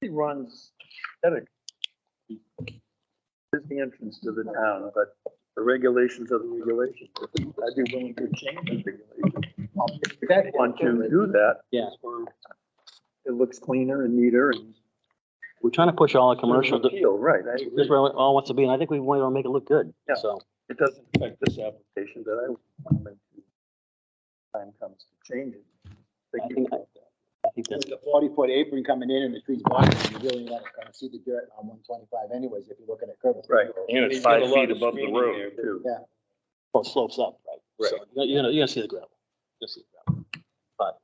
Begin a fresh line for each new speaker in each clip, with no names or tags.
He runs, Edit. Is the entrance to the town, but the regulations are the regulations. I'd be willing to change the regulations. If you want to do that.
Yeah.
It looks cleaner and neater and.
We're trying to push all the commercial, this
Feel, right. I
is
agree.
where it all wants to be, and I think we want to make it look good,
Yeah.
so.
It doesn't affect this application, but I would want them to. Time comes to change it.
I
Thank you.
think, I I think that's,
With the forty-foot apron coming in and the trees blocking, it, you really want to kind of see the dirt on one twenty-five anyways, if you're looking at curves.
Right.
And it's five feet above the road.
Too.
well, it slopes up, right? So You're you're gonna, you're gonna see the gravel, you'll see the gravel, but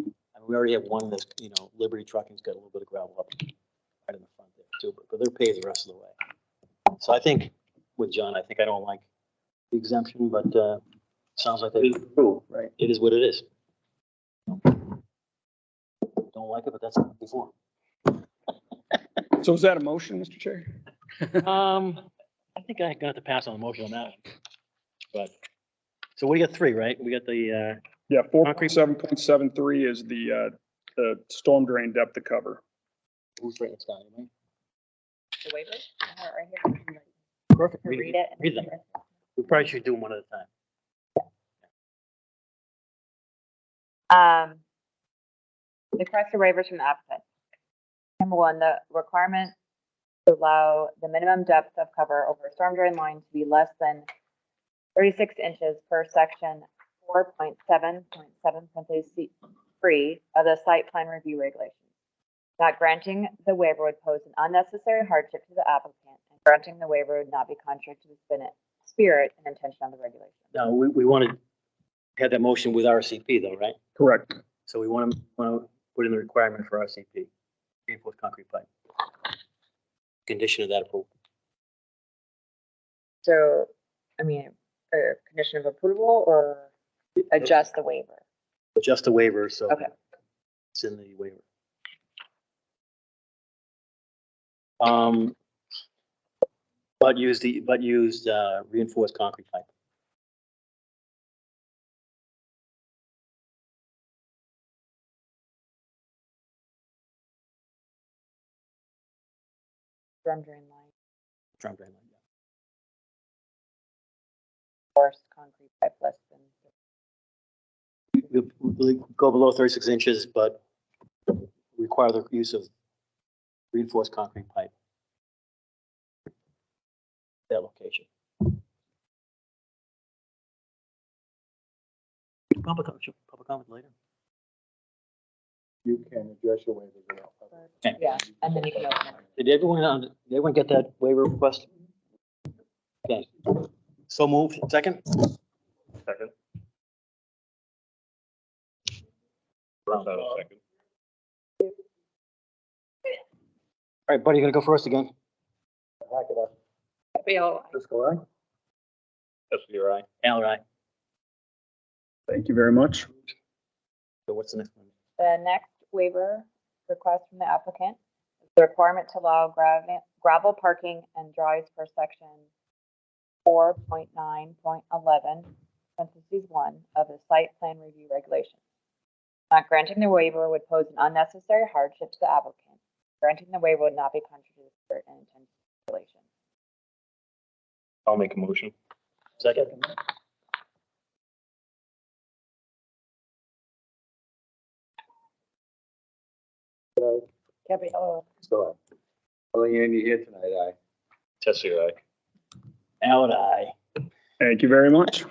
I mean, we already have one that's, you know, Liberty Trucking's got a little bit of gravel up right in the front there too, but- but they're paved the rest of the way. So I think with John, I think I don't like the exemption, but, uh, sounds like they
It is the rule, right?
it is what it is. Don't like it, but that's not before.
So is that a motion, Mr. Chair?
Um, I think I'm gonna have to pass on the motion on that. one, But, so we got three, right? We got the, uh,
Yeah, four
Concrete.
point seven point seven three is the, uh, the storm drain depth of cover.
who's writing this down, anyway?
The waiver? I have it right here. If you'd like
Perfect.
to
We
Read it.
read them. we probably should do them one at a time.
Um, request for waivers from the applicant. Number one, the requirement to allow the minimum depth of cover over a storm drain line to be less than thirty-six inches per section four point seven point seven parentheses C three of the site plan review regulations. Not granting the waiver would pose an unnecessary hardship to the applicant, and granting the waiver would not be contrary to the spirit- spirit and intention of the regulation.
No, we, we wanted, had that motion with RCP though, right?
Correct.
So we want to, want to put in the requirement for RCP, reinforced concrete pipe. Condition of that approval.
So, I mean, a condition of approval or adjust the waiver?
Just a waiver, so.
Okay.
It's in the waiver. Um, but use the, but used uh, reinforced concrete pipe.
Storm drain line,
drum drain line, yeah.
forced concrete pipe less than.
We- we- we Go below thirty-six inches, but require the use of reinforced concrete pipe. That location. Public, com- public comment later.
You can address your waivers. without public.
Okay.
Yeah, and then you can open it.
Did everyone, uh, did everyone get that waiver request? Okay, so moved, second?
Second.
Round
Not a second.
All right, buddy, you gonna go first again?
Hack it up.
Fiscal eye?
That's your eye.
Al, right,
Thank you very much.
so what's the next one?
The next waiver request from the applicant is the requirement to allow gravel, gravel parking and drives per section four point nine point eleven, parentheses one, of the site plan review regulations. Not granting the waiver would pose an unnecessary hardship to the applicant. Granting the waiver would not be contrary to the spirit and intent of the regulation.
I'll make a motion.
Second?
Gabriella.
So, only Andy here tonight, I.
Test your eye.
Al and I.
Thank you very much.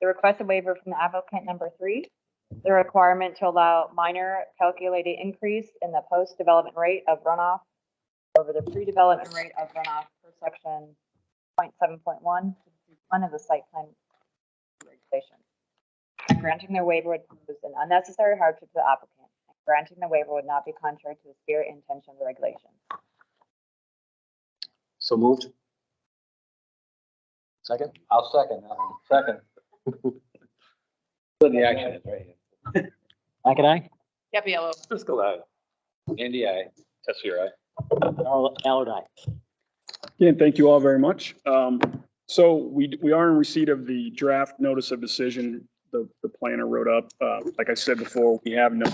The requested waiver from the applicant number three, the requirement to allow minor calculated increase in the post-development rate of runoff over the pre-development rate of runoff per section 0.7.1, one of the site plan regulations. And Granting the waiver would pose an unnecessary hardship to the applicant. and Granting the waiver would not be contrary to the spirit and intention of the regulation.
So moved? Second?
I'll second, I'll second. So the action is right
Al and I?
Gabriella.
Fiscal eye.
here. Andy, I.
Test your eye.
Al Al and I.
Again, thank you all very much. Um, so we, we are in receipt of the draft notice of decision the, the planner wrote up. Uh, like I said before, we have no